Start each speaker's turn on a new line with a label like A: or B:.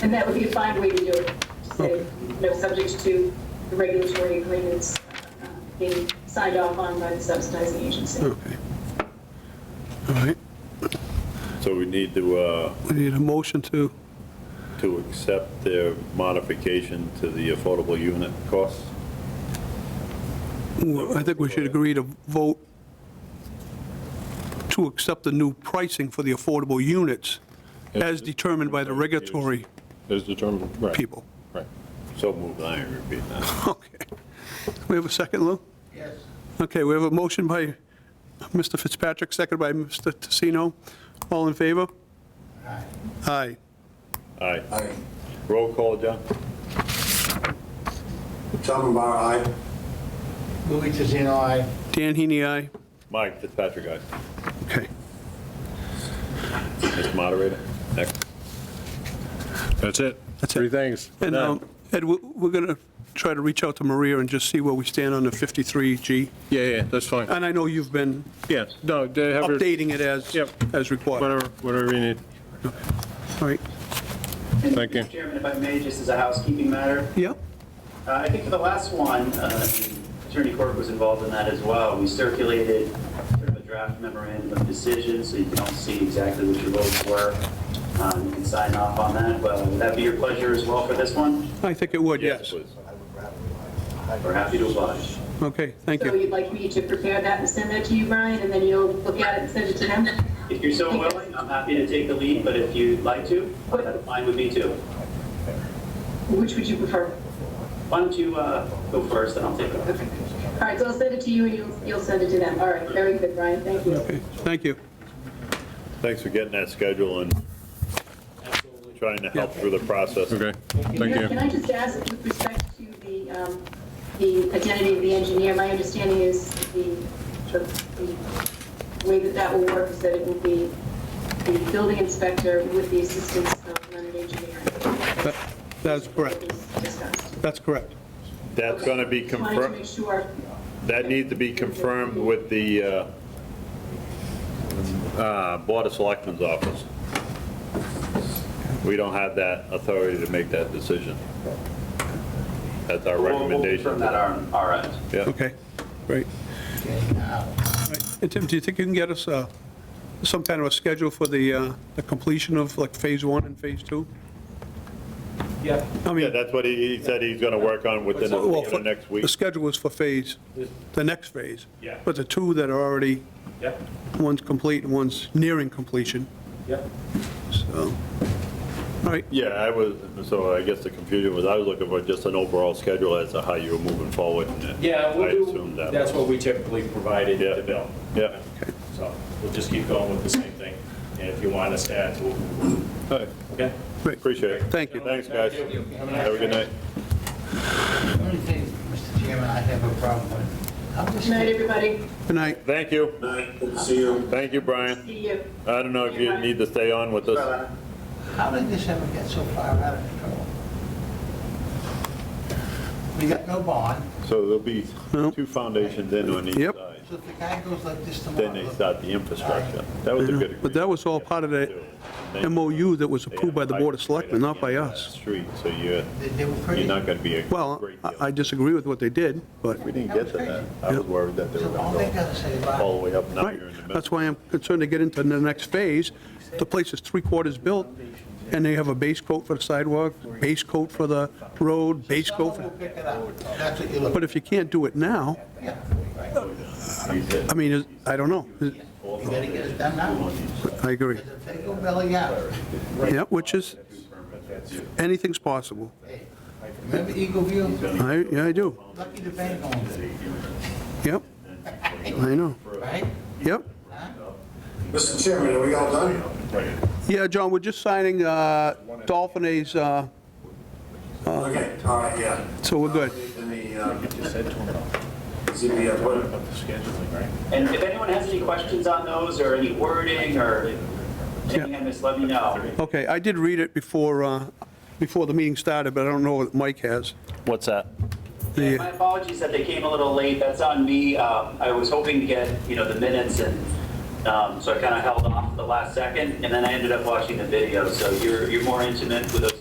A: And that would be a fine way to do it, to say, you know, subject to the regulatory agreements uh, being signed off on by the subsidizing agency.
B: Okay. All right,
C: So we need to, uh,
B: we need a motion to,
C: to accept their modification to the affordable unit costs?
B: I think we should agree to vote to accept the new pricing for the affordable units as determined by the regulatory
D: Is determined, right.
B: people.
D: Right.
C: So moved, I ain't repeating that.
B: Okay. We have a second, Lou? Yes. Okay, we have a motion by Mr. Fitzpatrick, second by Mr. Tassino. All in favor? Aye. Aye.
C: All right. Roll call, John?
E: Tom Bar, aye.
F: Louis Tiziano, aye.
B: Dan Heaney, aye.
C: Mike Fitzpatrick, aye.
B: Okay.
C: Mr. Moderator? Next.
D: That's it.
B: That's it.
D: Three things.
B: And
D: Done.
B: um, Ed, we- we're going to try to reach out to Maria and just see where we stand on the 53G.
D: Yeah, yeah, that's fine.
B: And I know you've been
D: Yeah, no, they have your,
B: updating it as,
D: Yep.
B: as required.
D: whatever, whatever you need.
B: All right.
D: Thank you.
G: Mr. Chairman, if I may, just as a housekeeping matter,
B: Yeah?
G: uh, I think for the last one, uh, Attorney Cork was involved in that as well. We circulated sort of a draft memorandum of decision, so you can all see exactly what your votes were. Um, You can sign off on that. Well, would that be your pleasure as well for this one?
B: I think it would, yes.
C: please.
G: We're happy to oblige.
B: Okay, thank
A: So
B: you.
A: you'd like me to prepare that and send that to you, Brian, and then you'll look at it and send it to them?
G: If you're so willing, I'm happy to take the lead, but if you'd like to, that's fine with me too.
A: Which would you prefer?
G: Why don't you uh, go first, and I'll take it.
A: Okay. All right, so I'll send it to you and you'll, you'll send it to them. All right, very good, Brian, thank you.
B: Okay, Thank you.
C: Thanks for getting that schedule and trying to help through the process.
D: Okay, thank
A: Can I- Can
D: you.
A: I just ask, with respect to the, um, the identity of the engineer, my understanding is the, the the way that that will work is that it will be the building inspector with the assistance of Leonard Engineering.
B: That- That's correct.
A: Discussed.
B: That's correct.
C: That's going to be
A: Just Wanted to make
C: confirmed,
A: sure,
C: that needs to be confirmed with the uh, uh, Board of Selectmen's office. We don't have that authority to make that decision. That's our
G: We'll-
C: recommendation.
G: We'll confirm that on our end.
C: Yeah.
B: Okay, great. Right. And Tim, do you think you can get us uh, some kind of a schedule for the uh, the completion of like Phase 1 and Phase 2?
F: Yeah.
B: I
C: Yeah,
B: mean,
C: that's what he he said he's going to work on within the
B: well,
C: within the next week.
B: the schedule was for phase, the next phase.
F: Yeah.
B: But the two that are already,
F: Yeah,
B: one's complete and one's nearing completion,
F: yeah.
B: so. All right,
C: Yeah, I was, so I guess the confusion was, I was looking for just an overall schedule as to how you were moving forward. and
F: Yeah,
C: I
F: we'll
C: assumed
F: do,
C: that
F: that's
C: was-
F: what we typically provided
C: Yeah.
F: to Bill.
C: Yeah.
F: So we'll just keep going with the same thing. And if you want us to add to it,
C: All right,
F: okay?
B: great.
C: Appreciate it.
B: Thank you.
C: Thanks, guys.
F: Thank you. Have a nice
C: Have a good night.
H: The only thing, Mr. Chairman, I have a problem with, I'm
A: good
H: just,
A: night, everybody,
B: Good night.
C: Thank you.
E: Night, good to see you.
C: Thank you, Brian.
A: see you.
C: I don't know if you need to stay on with us.
H: how did this ever get so far out of control? We got no bond,
C: So there'll be
B: No.
C: two foundations in on each
B: Yep.
C: side.
H: so if the guy goes like this tomorrow.
C: Then they start the infrastructure. That was a good agreement.
B: But that was all part of that MOU that was approved by the Board of Selectmen, not by us.
C: Street, so you're,
H: They they were pretty.
C: you're not going to be a
B: Well,
C: great
B: I- I
C: deal.
B: disagree with what they did, but,
C: We didn't get to that. I was worried that they were
H: So all
C: going
H: they
C: to go
H: gotta say
C: all the
H: about,
C: way up. Now
B: right,
C: you're in the middle.
B: that's why I'm concerned to get into the next phase. The place is three-quarters built, and they have a base coat for the sidewalk, base coat for the road, base coat
H: someone will
B: for,
H: pick it up, that's what you're looking.
B: but if you can't do it now,
H: Yeah,
B: I mean, is- I don't know.
H: you gotta get it done now,
B: I agree.
H: because if they go belly out,
B: Yeah, which is, anything's possible.
H: remember Eagle View,
B: I, yeah, I do.
H: lucky the bank owned it,
B: Yep. I know.
H: right?
B: Yep.
E: Mr. Chairman, are we all done?
B: Yeah, John, we're just signing uh, Dolphin A's, uh,
E: Okay, all right, yeah.
B: so we're good.
E: Then the, uh, ZBA, what-
G: And if anyone has any questions on those, or any wording, or anything I missed, let me know.
B: Okay, I did read it before, uh, before the meeting started, but I don't know what Mike has.
C: What's that?
B: The-
G: My apologies that they came a little late, that's on me. Um, I was hoping to get, you know, the minutes, and um, so I kind of held off the last second, and then I ended up watching the video, so you're, you're more intimate with those